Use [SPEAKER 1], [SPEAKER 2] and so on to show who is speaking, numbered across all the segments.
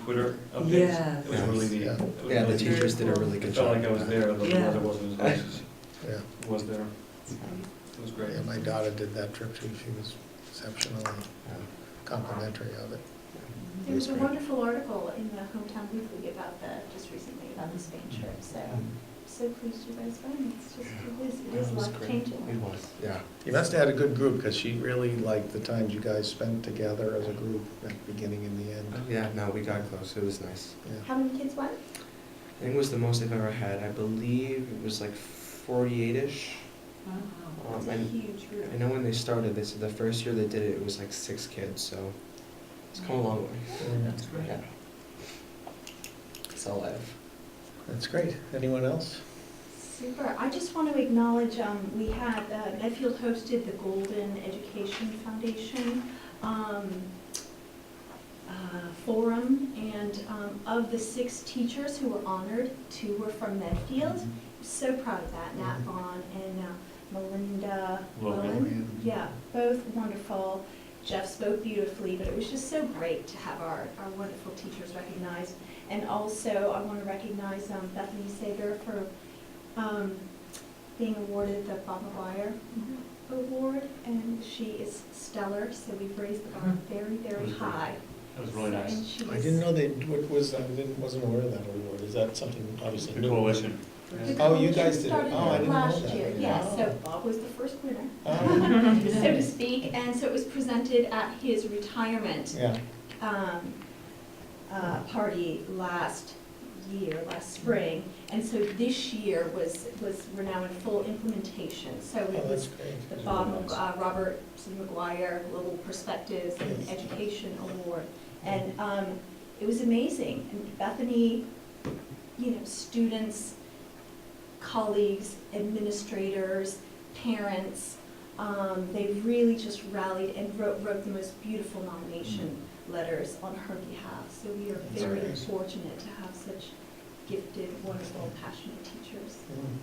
[SPEAKER 1] Twitter updates.
[SPEAKER 2] Yes.
[SPEAKER 1] It was really neat.
[SPEAKER 3] Yeah.
[SPEAKER 1] It was
[SPEAKER 4] Yeah, the
[SPEAKER 1] really
[SPEAKER 4] teachers did a really
[SPEAKER 1] It
[SPEAKER 4] good
[SPEAKER 1] felt
[SPEAKER 4] job.
[SPEAKER 1] like I was there, though the
[SPEAKER 2] Yeah.
[SPEAKER 1] weather wasn't as nice as
[SPEAKER 3] Yeah,
[SPEAKER 1] it was there. It was great.
[SPEAKER 3] yeah, my daughter did that trip too, she was exceptionally complimentary of it.
[SPEAKER 5] There was a wonderful article in the Hometown Weekly about that, just recently, about the Spain
[SPEAKER 4] Mm-hmm.
[SPEAKER 5] trip, so, so pleased you guys went, it's just, it is, it is
[SPEAKER 4] It was
[SPEAKER 5] life
[SPEAKER 4] great. It
[SPEAKER 5] changing.
[SPEAKER 4] was, yeah.
[SPEAKER 3] You must have had a good group, because she really liked the times you guys spent together as a group, at the beginning and the end.
[SPEAKER 4] Oh, Yeah, no, we got close. It was nice.
[SPEAKER 3] Yeah.
[SPEAKER 5] How many kids went?
[SPEAKER 4] I think it was the most I've ever had. I believe it was like 48-ish.
[SPEAKER 5] It's
[SPEAKER 4] Um,
[SPEAKER 5] a
[SPEAKER 4] and
[SPEAKER 5] huge group.
[SPEAKER 4] I know when they started, they said the first year they did it, it was like six kids, so it's come a long way.
[SPEAKER 3] Mm,
[SPEAKER 4] Yeah. It's all life.
[SPEAKER 3] That's great. Anyone else?
[SPEAKER 5] Super. I just want to acknowledge, um, we had, uh, Medfield hosted the Golden Education Foundation, um, uh, forum, and, um, of the six teachers who were honored, two were from Medfield. So proud of that,
[SPEAKER 4] Mm-hmm.
[SPEAKER 5] Nat Vaughn and uh, Melinda
[SPEAKER 1] Logan.
[SPEAKER 3] Oh,
[SPEAKER 5] Lowen. Yeah, both wonderful. Jeff spoke beautifully, but it was just so great to have our, our wonderful teachers recognized. And also, I want to recognize um, Bethany Sager for um, being awarded the Bob McGuire Award, and she is stellar, so we've raised the bar very, very high.
[SPEAKER 3] Oh,
[SPEAKER 1] It was really nice.
[SPEAKER 5] And she
[SPEAKER 3] I
[SPEAKER 5] is-
[SPEAKER 3] didn't know they, what was, I didn't, wasn't aware of that award. Is that something obviously
[SPEAKER 1] The
[SPEAKER 3] new?
[SPEAKER 1] coalition.
[SPEAKER 5] the
[SPEAKER 3] Oh, you
[SPEAKER 5] coalition
[SPEAKER 3] guys did it.
[SPEAKER 5] started
[SPEAKER 3] Oh, I didn't know
[SPEAKER 5] last
[SPEAKER 3] that.
[SPEAKER 5] year, Yeah,
[SPEAKER 3] Oh.
[SPEAKER 5] so Bob was the first winner.
[SPEAKER 3] Oh,
[SPEAKER 5] so to speak, and so it was presented at his retirement
[SPEAKER 3] Yeah,
[SPEAKER 5] um, uh, party last year, last spring. And so this year was, was, we're now in full implementation. So
[SPEAKER 3] oh,
[SPEAKER 5] it
[SPEAKER 3] that's
[SPEAKER 5] was
[SPEAKER 3] great.
[SPEAKER 5] the Bob, uh, Robert C. McGuire Global Perspectives and
[SPEAKER 3] Yes.
[SPEAKER 5] Education Award. And um, it was amazing. And Bethany, you know, students, colleagues, administrators, parents, um, they really just rallied and wrote, wrote the most beautiful nomination letters on her behalf. So we are
[SPEAKER 3] That's
[SPEAKER 5] very
[SPEAKER 3] amazing.
[SPEAKER 5] fortunate to have such gifted, wonderful, passionate teachers.
[SPEAKER 3] Mm.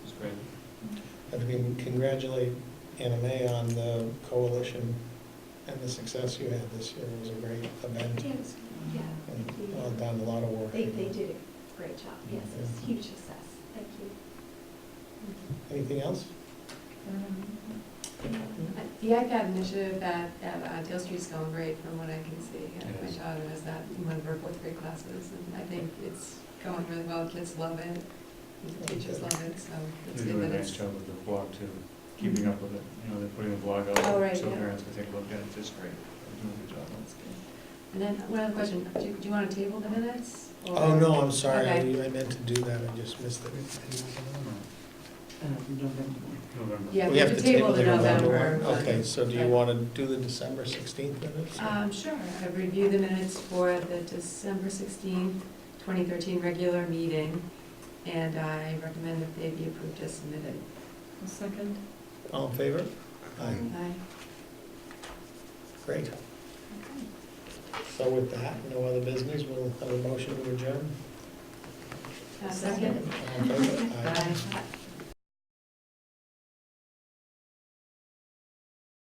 [SPEAKER 1] It was great.
[SPEAKER 3] And we congratulate Anna May on the coalition and the success you had this year. It was a great event
[SPEAKER 5] Yeah, it was- yeah.
[SPEAKER 3] and uh, done a lot of work.
[SPEAKER 5] They, they did a great job, yes, it was a huge success, thank
[SPEAKER 3] Anything else?
[SPEAKER 5] you.
[SPEAKER 6] The IPAD initiative at, at uh, Dale Street's going great from what I can see. Uh, My
[SPEAKER 1] Yes.
[SPEAKER 6] daughter is that in one of her fourth grade classes, and I think it's going really well. Kids love it, and the teachers love it, so it's
[SPEAKER 1] They do
[SPEAKER 6] good
[SPEAKER 1] a
[SPEAKER 6] that
[SPEAKER 1] nice
[SPEAKER 6] it's.
[SPEAKER 1] job with the blog too, keeping up with it. You know, they're putting a blog out
[SPEAKER 6] Oh, right,
[SPEAKER 1] so
[SPEAKER 6] yeah.
[SPEAKER 1] parents can take a look at it. It's great. They're doing a good job.
[SPEAKER 6] And then, one other question, do you, do you want to table the minutes? or-
[SPEAKER 3] Oh, no, I'm sorry, I
[SPEAKER 6] Okay.
[SPEAKER 3] I meant to do that, I just missed it.
[SPEAKER 1] November.
[SPEAKER 6] Yeah,
[SPEAKER 3] We have to table the November.
[SPEAKER 6] one.
[SPEAKER 3] Okay, Uh, so do you
[SPEAKER 6] Right.
[SPEAKER 3] want to do the December 16th minutes?
[SPEAKER 6] Um, sure, I reviewed the minutes for the December sixteenth, twenty thirteen regular meeting, and I recommend that they be approved as submitted.
[SPEAKER 2] Second?
[SPEAKER 3] All in favor? Aye,
[SPEAKER 6] Aye.
[SPEAKER 3] great. So with that, no other business, we'll have a motion to adjourn.
[SPEAKER 6] Uh, Second?
[SPEAKER 3] All in favor? Aye.
[SPEAKER 6] Aye.